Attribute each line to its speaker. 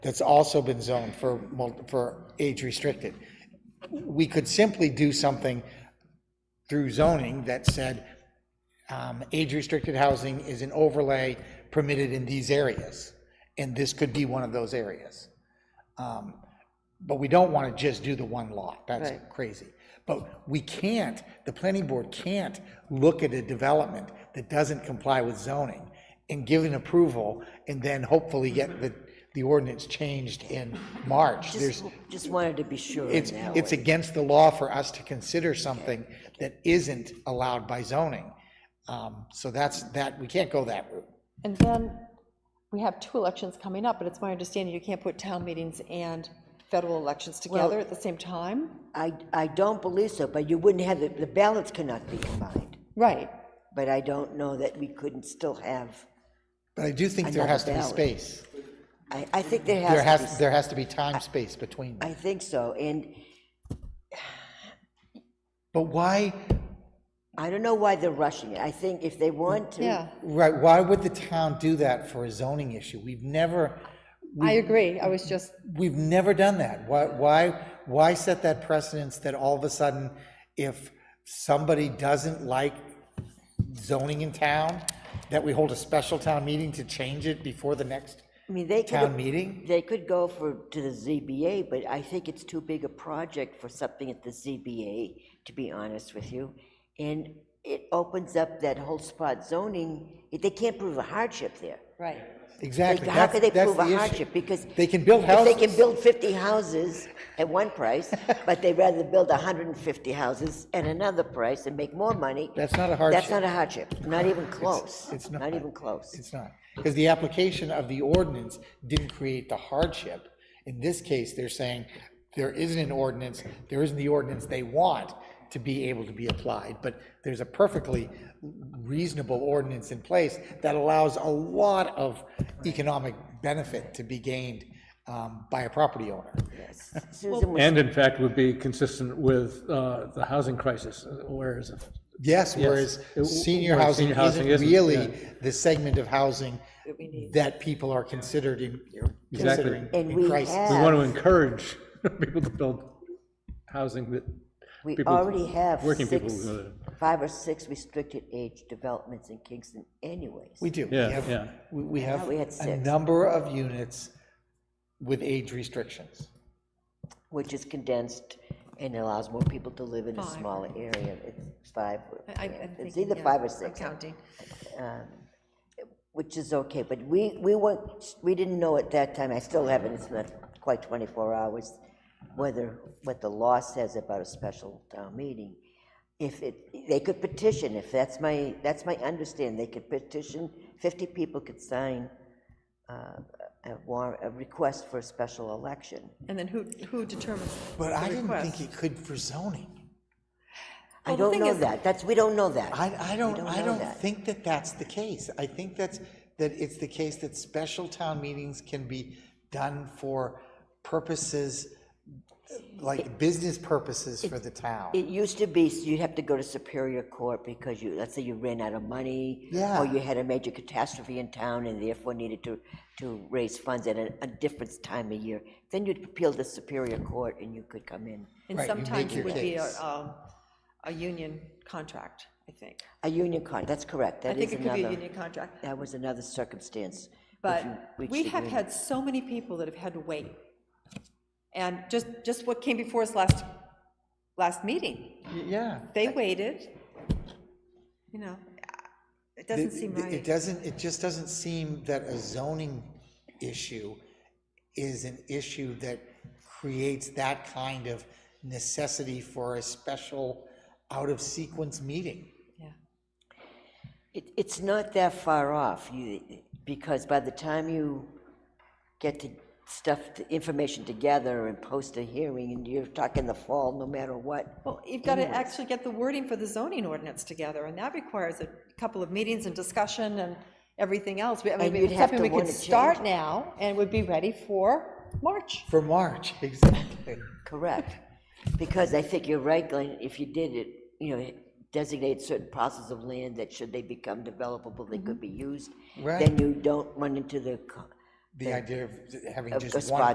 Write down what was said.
Speaker 1: that's also been zoned for, mul- for age restricted. We could simply do something through zoning that said, um, age-restricted housing is an overlay permitted in these areas, and this could be one of those areas. Um, But we don't want to just do the one lot, that's
Speaker 2: Right.
Speaker 1: crazy. But we can't, the planning board can't look at a development that doesn't comply with zoning and give an approval, and then hopefully get the, the ordinance changed in March. There's,
Speaker 2: Just, just wanted to be sure
Speaker 1: it's,
Speaker 2: now.
Speaker 1: it's against the law for us to consider something that isn't allowed by zoning. Um, So that's, that, we can't go that route.
Speaker 3: And then we have two elections coming up, but it's my understanding you can't put town meetings and federal elections together at the same time?
Speaker 2: I, I don't believe so, but you wouldn't have, it- the ballots cannot be combined.
Speaker 3: Right.
Speaker 2: But I don't know that we couldn't still have,
Speaker 1: But I do think there
Speaker 2: Another
Speaker 1: has to be
Speaker 2: ballot.
Speaker 1: space.
Speaker 2: I, I think there
Speaker 1: There
Speaker 2: has to be.
Speaker 1: has, there has to be time, space between them.
Speaker 2: I think so, and
Speaker 1: But why,
Speaker 2: I don't know why they're rushing it. I think if they want to.
Speaker 3: Yeah,
Speaker 1: right, why would the town do that for a zoning issue? We've never,
Speaker 3: I agree. I was just,
Speaker 1: we've never done that. Why, why, why set that precedence that all of a sudden, if somebody doesn't like zoning in town, that we hold a special town meeting to change it before the next
Speaker 2: I mean, they could.
Speaker 1: town meeting?
Speaker 2: They could go for, to the ZBA, but I think it's too big a project for something at the ZBA, to be honest with you. And it opens up that whole spot zoning, they can't prove a hardship there.
Speaker 3: right.
Speaker 1: Exactly.
Speaker 2: How could they
Speaker 1: that's- that's
Speaker 2: prove a
Speaker 1: the issue.
Speaker 2: hardship? Because.
Speaker 1: They can build
Speaker 2: if They
Speaker 1: houses.
Speaker 2: can build 50 houses at one price, but they'd rather build 150 houses at another price and make more money.
Speaker 1: That's not a
Speaker 2: That's
Speaker 1: hardship.
Speaker 2: not a hardship, not even close.
Speaker 1: it's not.
Speaker 2: Not even close.
Speaker 1: It's not, because the application of the ordinance didn't create the hardship. In this case, they're saying there isn't an ordinance, there isn't the ordinance they want to be able to be applied, but there's a perfectly reasonable ordinance in place that allows a lot of economic benefit to be gained um, by a property owner.
Speaker 2: Susan was,
Speaker 4: And in fact, would be consistent with uh, the housing crisis, uh, where is it?
Speaker 1: Yes, whereas
Speaker 4: It-
Speaker 1: senior
Speaker 4: whereas
Speaker 1: housing
Speaker 4: senior housing
Speaker 1: isn't
Speaker 4: isn't,
Speaker 1: really
Speaker 4: yeah.
Speaker 1: the segment of housing that people are considered in,
Speaker 4: Exactly.
Speaker 1: considering
Speaker 2: And
Speaker 1: in
Speaker 2: we
Speaker 1: crisis.
Speaker 2: have-
Speaker 4: We want to encourage people to build housing that,
Speaker 2: we
Speaker 4: people-
Speaker 2: already have
Speaker 4: working people
Speaker 2: six,
Speaker 4: who are-
Speaker 2: five or six restricted age developments in Kingston anyways.
Speaker 1: We do. We
Speaker 4: Yeah,
Speaker 1: have-
Speaker 4: yeah.
Speaker 1: We we have
Speaker 2: we had
Speaker 1: a
Speaker 2: six.
Speaker 1: number of units with age restrictions.
Speaker 2: which is condensed and allows more people to live in a
Speaker 3: Five.
Speaker 2: smaller area. It's five,
Speaker 3: I- I'm
Speaker 2: yeah, it's
Speaker 3: thinking,
Speaker 2: either
Speaker 3: yeah,
Speaker 2: five or
Speaker 3: I'm
Speaker 2: six,
Speaker 3: counting.
Speaker 2: which is okay, but we, we weren't, we didn't know at that time, I still haven't, it's not quite 24 hours, whether, what the law says about a special town meeting. If it, they could petition, if that's my, that's my understanding, they could petition, 50 people could sign uh, a warrant, a request for a special election.
Speaker 3: And then who, who determines?
Speaker 1: But I
Speaker 3: the
Speaker 1: didn't
Speaker 3: request?
Speaker 1: think it could for zoning.
Speaker 2: I
Speaker 3: Well, the
Speaker 2: don't
Speaker 3: thing
Speaker 2: know
Speaker 3: is-
Speaker 2: that, that's, we don't know that.
Speaker 1: I, I don't,
Speaker 2: don't
Speaker 1: I
Speaker 2: know
Speaker 1: don't
Speaker 2: that.
Speaker 1: think that that's the case. I think that's, that it's the case that special town meetings can be done for purposes, like business purposes for the town.
Speaker 2: It used to be, so you'd have to go to Superior Court because you, let's say you ran out of money.
Speaker 1: Yeah.
Speaker 2: Or you had a major catastrophe in town and therefore needed to, to raise funds at a, a different time of year. Then you'd appeal to Superior Court and you could come in.
Speaker 3: And
Speaker 1: Right, you make
Speaker 3: sometimes
Speaker 1: your
Speaker 3: it would be a,
Speaker 1: case.
Speaker 3: um, a union contract, I think.
Speaker 2: A union con, that's correct,
Speaker 3: I
Speaker 2: that
Speaker 3: think
Speaker 2: is
Speaker 3: it could be a
Speaker 2: another,
Speaker 3: union contract.
Speaker 2: that was another circumstance. if you
Speaker 3: But
Speaker 2: reached
Speaker 3: we have
Speaker 2: agreement.
Speaker 3: had so many people that have had to wait. And just, just what came before us last, last meeting,
Speaker 1: Yeah.
Speaker 3: they waited, you know, it doesn't
Speaker 1: It-
Speaker 3: seem
Speaker 1: it- It
Speaker 3: right.
Speaker 1: doesn't, it just doesn't seem that a zoning issue is an issue that creates that kind of necessity for a special out-of-sequence meeting.
Speaker 3: Yeah.
Speaker 2: It, it's not that far off, you, because by the time you get to stuff, the information together and post a hearing, and you're talking the fall no matter what.
Speaker 3: Well, you've got to actually get the wording for the zoning ordinance together, and that requires a couple of meetings and discussion and everything else. We- I mean,
Speaker 2: And you'd
Speaker 3: it's
Speaker 2: have
Speaker 3: something
Speaker 2: to
Speaker 3: we could
Speaker 2: wanna
Speaker 3: start
Speaker 2: change.
Speaker 3: now and would be ready for March.
Speaker 1: For March, exactly.
Speaker 2: Correct. Because I think you're right, Glenn, if you did it, you know, designate certain parcels of land that should they become developable, they could be used.
Speaker 1: Right.
Speaker 2: Then you don't run into the co-
Speaker 1: the idea of having
Speaker 2: Of
Speaker 1: just
Speaker 2: a
Speaker 1: one
Speaker 2: spot